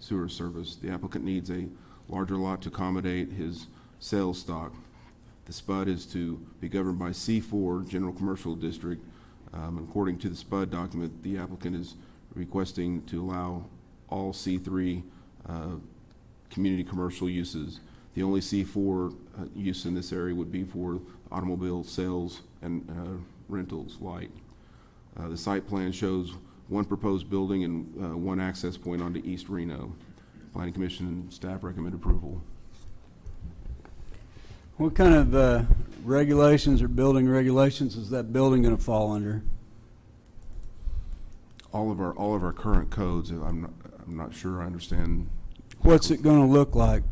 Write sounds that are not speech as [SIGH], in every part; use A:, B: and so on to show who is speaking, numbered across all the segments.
A: sewer service. The applicant needs a larger lot to accommodate his sales stock. The SPUD is to be governed by C4 General Commercial District. Um, According to the SPUD document, the applicant is requesting to allow all C3 uh, community commercial uses. The only C4 uh, use in this area would be for automobile sales and uh, rentals light. Uh, The site plan shows one proposed building and uh, one access point onto East Reno. Planning Commission and staff recommend approval.
B: What kind of uh, regulations or building regulations is that building going to fall under?
A: All of our, all of our current codes, I'm, not- I'm not sure I understand
B: What's it going to look like?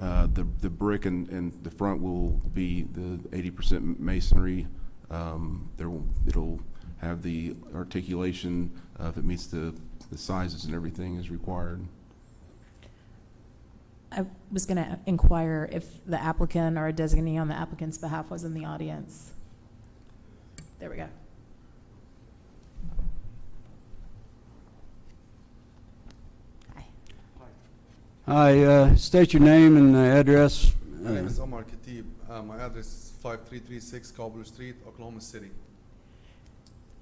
A: Uh, The, the brick and, and the front will be the eighty percent masonry. Um, There will, it'll have the articulation, uh, if it meets the, the sizes and everything is required.
C: I was going to inquire if the applicant or a designee on the applicant's behalf was in the audience. There we go. Hi.
B: Hi, uh, state your name and uh, address.
D: My name is Omar Khatib. Uh, my address is 5336 Cobbler Street, Oklahoma City.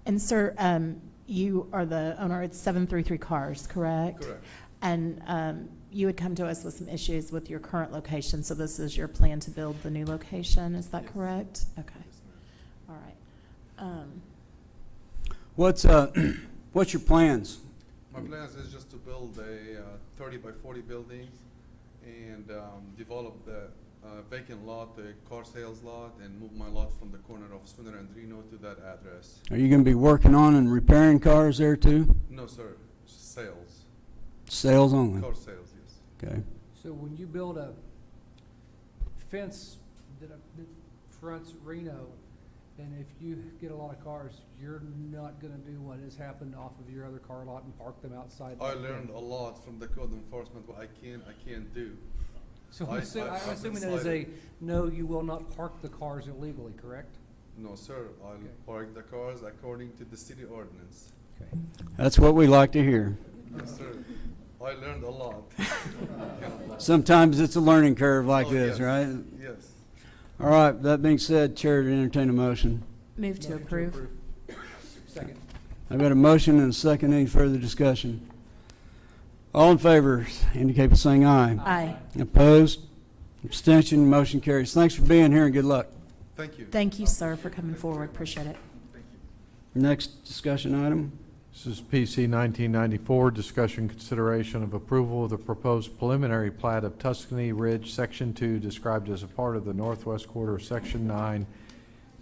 C: And sir, um, you are the owner, it's 733 Cars, correct?
D: Correct.
C: And um, you had come to us with some issues with your current location, so this is your plan to build the new location, is that
D: Yes.
C: correct? Okay,
D: Yes, ma'am.
C: all right. Um,
B: What's, uh, [CLEARS THROAT] what's your plans?
D: My plans is just to build a uh, 30 by 40 building and um, develop the uh, vacant lot, the car sales lot, and move my lot from the corner of Spooner and Reno to that address.
B: Are you going to be working on and repairing cars there too?
D: No, sir, sales,
B: Sales only?
D: car sales, yes.
B: Okay.
E: So when you build a fence that that fronts Reno, and if you get a lot of cars, you're not gonna do what has happened off of your other car lot and park them outside.
D: I
E: that
D: learned a
E: fence.
D: lot from the code enforcement, what I can, I can't do.
E: So
D: I-
E: I'm assu-
D: I- I've
E: I'm
D: been
E: assuming that is a, no, you will not park the cars illegally, correct?
D: No, sir, I'll
E: Okay.
D: park the cars according to the city ordinance.
E: Okay.
B: That's what we like to hear.
D: Yes, sir. I learned a lot.
B: Sometimes it's a learning curve like
D: Oh,
B: this,
D: yes.
B: right?
D: Yes.
B: All right, that being said, Chair to entertain a motion.
C: Move to
E: Motion
C: approve.
E: Second.
B: I've got a motion and a second. Any further discussion? All in favor indicate by saying aye.
C: Aye.
B: Opposed? Abstention? Motion carries. Thanks for being here and good luck.
D: Thank you.
C: Thank you, sir, for coming forward, appreciate it.
B: Next discussion item.
F: This is PC 1994, discussion consideration of approval of the proposed preliminary plat of Tuscany Ridge, Section 2, described as a part of the northwest quarter of Section 9,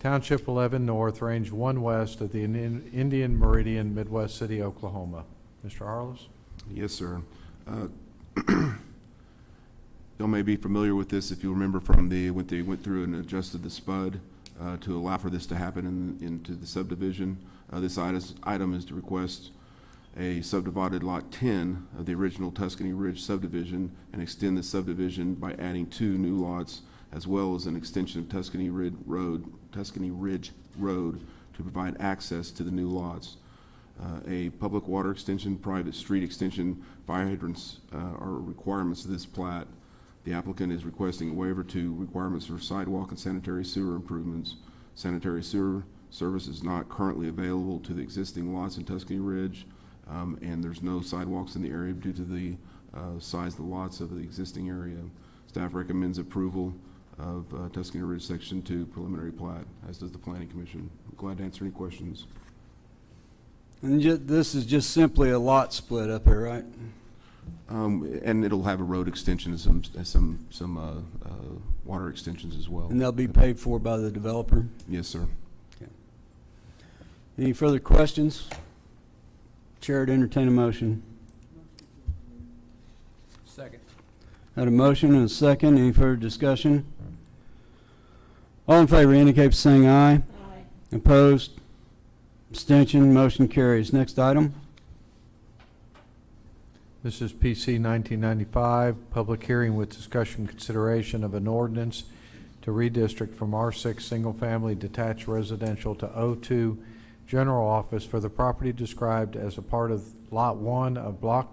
F: Township 11 North, Range 1 West of the Indian Indian Meridian, Midwest City, Oklahoma. Mr. Harless?
A: Yes, sir. Uh, [CLEARS THROAT] Y'all may be familiar with this if you remember from the, when they went through and adjusted the SPUD uh, to allow for this to happen in- into the subdivision. Uh, This itis- item is to request a subdivided Lot 10 of the original Tuscany Ridge subdivision and extend the subdivision by adding two new lots as well as an extension of Tuscany Ridge Road, Tuscany Ridge Road to provide access to the new lots uh, a public water extension, private street extension, fire hydrants uh, are requirements of this plat. The applicant is requesting a waiver to requirements for sidewalk and sanitary sewer improvements. Sanitary sewer service is not currently available to the existing lots in Tuscany Ridge, um, and there's no sidewalks in the area due to the uh, size of the lots of the existing area. Staff recommends approval of uh, Tuscany Ridge Section 2 preliminary plat, as does the Planning Commission. Glad to answer any questions.
B: And ju- this is just simply a lot split up here, right?
A: Um, and it'll have a road extension and some, and some, some, uh, uh, water extensions as well.
B: And they'll be paid for by the developer.
A: Yes, sir.
B: Any further questions? Chair to entertain a motion.
E: Second.
B: Had a motion and a second. Any further discussion? All in favor indicate by saying aye.
C: Aye.
B: Opposed? Abstention? Motion carries. Next item.
F: This is PC 1995, public hearing with discussion consideration of an ordinance to redistrict from R6 Single Family Detached Residential to O2 General Office for the property described as a part of Lot 1 of Block